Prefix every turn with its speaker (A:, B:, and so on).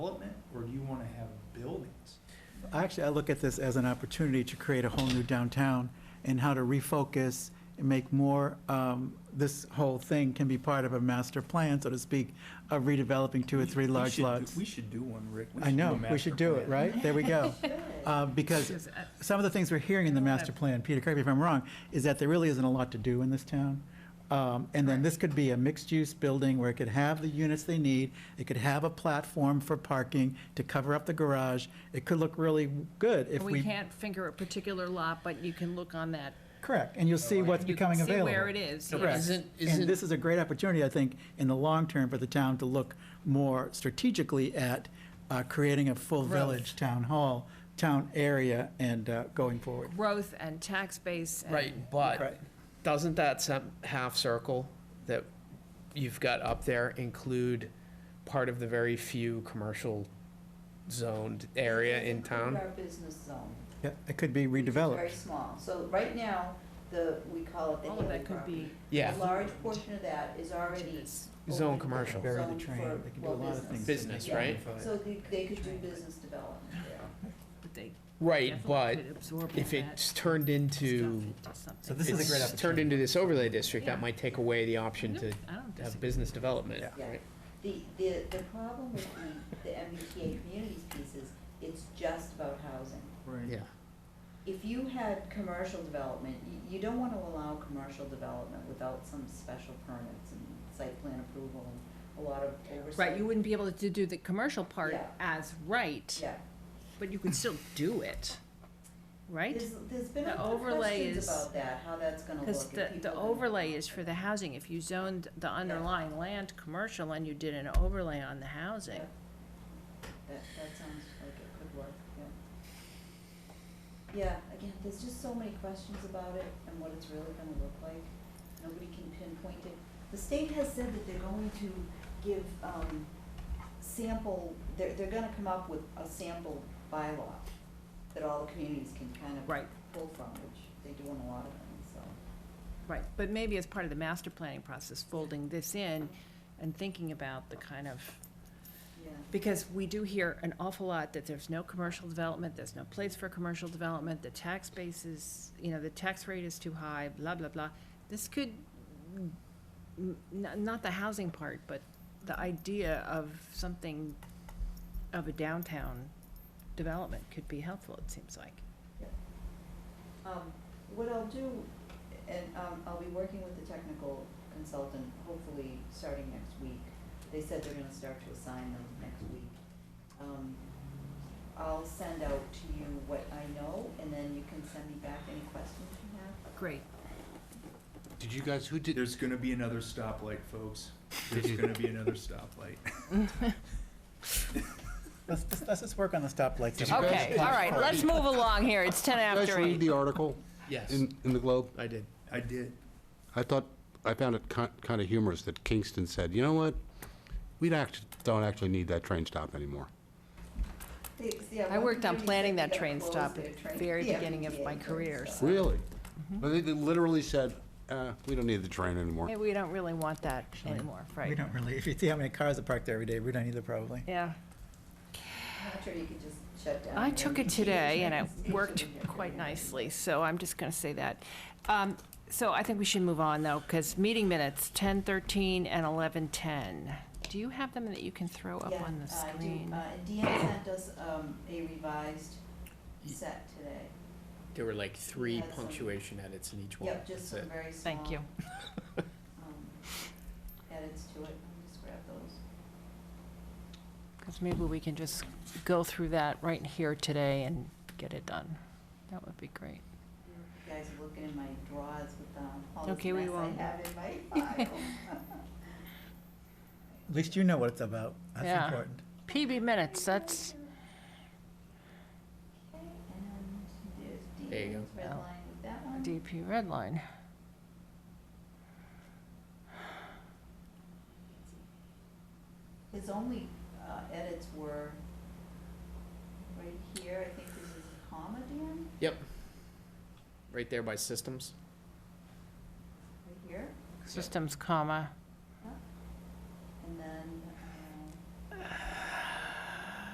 A: or do you want to have buildings?
B: Actually, I look at this as an opportunity to create a whole new downtown and how to refocus and make more, um, this whole thing can be part of a master plan, so to speak, of redeveloping two or three
A: We
B: large
A: should do-
B: lots.
A: We should do one, Rick. We
B: I
A: should do a
B: know, we should
A: master
B: do it,
A: plan.
B: right? There we go. Uh, Because some of the things we're hearing in the master plan, Peter, correct me if I'm wrong, is that there really isn't a lot to do in this town. Um, And then this could be a mixed-use building where it could have the units they need, it could have a platform for parking to cover up the garage. It could look really good if we.
C: We can't finger a particular lot, but you can look on that.
B: Correct, and you'll see what's
C: You can
B: becoming
C: see
B: available.
C: where it is.
B: Correct.
C: yes.
D: Isn't-
B: And
D: isn't-
B: this is a great opportunity, I think, in the long term for the town to look more strategically at uh, creating a full
C: Growth.
B: village town hall, town area, and uh, going forward.
C: Growth and tax base and.
D: Right,
B: Right.
D: but doesn't that some half circle that you've got up there include part of the very few commercial zoned area in town?
E: Our business zone.
B: Yeah, It could be
E: which is Very
B: redeveloped.
E: small. So right now, the, we call it the
C: All of
E: Haley
C: that could
E: property.
C: be.
D: Yeah,
E: A large portion of that is already.
D: Zone
E: open,
D: commercial.
B: Bury the
E: zoned
B: train,
E: for,
B: they can do a
E: well,
B: lot of things.
D: Business,
E: Yeah.
D: right?
E: So they, they could do business development there.
C: but they
D: right,
C: definitely
D: but
C: could absorb all
D: if
C: that
D: it's turned into,
C: stuff into something.
B: So this is a great
D: it's turned into this overlay district,
C: Yeah.
D: that might take away the option
C: No,
D: to
C: I don't
D: have
C: disagree.
D: business development,
B: Yeah.
E: Yeah.
D: right?
E: The, the, the problem with the, the MBTA communities piece is it's just about housing.
B: Right.
D: Yeah,
E: If you had commercial development, you, you don't wanna allow commercial development without some special permits and site plan approval and a lot of oversight.
C: Right, you wouldn't be able to do the commercial part
E: Yeah.
C: as right,
E: Yeah.
C: but you could still do it, right?
E: There's, there's been
C: The
E: a
C: overlay
E: questions
C: is-
E: about that, how that's gonna look.
C: Because
E: if
C: the,
E: people
C: the
E: can-
C: overlay is for the housing. If you zoned the underlying land commercial and you did an overlay on the
E: Yeah.
C: housing,
E: That, that sounds like it could work, yeah. Yeah, again, there's just so many questions about it and what it's really gonna look like. Nobody can pinpoint it. The state has said that they're going to give, um, sample, they're, they're gonna come up with a sample bylaw that all the communities can kind of
C: right,
E: pull from, which they do in a lot of things, so.
C: right. But maybe as part of the master planning process, folding this in and thinking about the kind of,
E: Yeah.
C: because we do hear an awful lot that there's no commercial development, there's no place for commercial development, the tax base is, you know, the tax rate is too high, blah, blah, blah. This could, n- n- not the housing part, but the idea of something of a downtown development could be helpful, it seems like.
E: Um, what I'll do, and, um, I'll be working with the technical consultant, hopefully, starting next week. They said they're gonna start to assign them next week. Um, I'll send out to you what I know, and then you can send me back any questions you have.
C: Great.
F: Did you guys, who did,
A: There's going to be another stoplight, folks. There's going to be another stoplight.
B: Let's, let's- let's just work on the stoplights.
F: Did you guys-
C: Okay, all right, let's move along here. It's ten
F: you guys
C: after
F: read
C: eight.
F: the article
D: yes,
F: in, in the Globe?
D: I did.
A: I did.
F: I thought, I found it kind of humorous that Kingston said, you know what? We act don't actually need that train stop anymore.
E: They- yeah,
C: I
E: one
C: worked on
E: community said
C: planning
E: they
C: that
E: gotta
C: train
E: close
C: stop
E: their
C: at
E: train-
C: very
E: the
C: beginning of
E: MBTA
C: my
E: train
C: career,
E: stop.
F: Really?
C: Mm-hmm.
F: But they they literally said, uh, we don't need the train
C: Hey,
F: anymore.
C: we don't really want that anymore,
B: We
C: right?
B: don't really, if you see how many cars are parked there every day, we don't either probably.
C: Yeah.
E: I'm sure you could just shut down.
C: I
E: the
C: took it
E: MBTA
C: today and
E: train
C: it
E: station
C: worked
E: and
C: quite
E: everything.
C: nicely, so I'm just gonna say that. Um, So I think we should move on though, because meeting minutes, ten thirteen and eleven ten. Do you have them that you can throw up
E: Yeah,
C: on the
E: uh, I do.
C: screen?
E: Uh, Deanne sent us, um, a revised set today.
D: There were like three
E: Yes, and-
D: punctuation edits in each one.
E: Yep,
D: That's
E: just some
D: it.
E: very small.
C: Thank you.
E: um, Edits to it, I'll just grab those.
C: Because maybe we can just go through that right here today and get it done. That would be great.
E: You guys are looking in my drawers with, um, all this
C: Okay, we
E: mess I
C: won't.
E: have in my file.
B: At least you know what it's about.
C: Yeah.
B: That's important.
C: PB minutes, that's,
E: And there's
D: There you go.
E: Deanne's red
C: Oh.
E: line with that one.
C: DP red line.
E: His only uh, edits were right here, I think this is a comma, Dan,
D: Right there by systems.
E: right here.
C: Systems, comma,
E: um,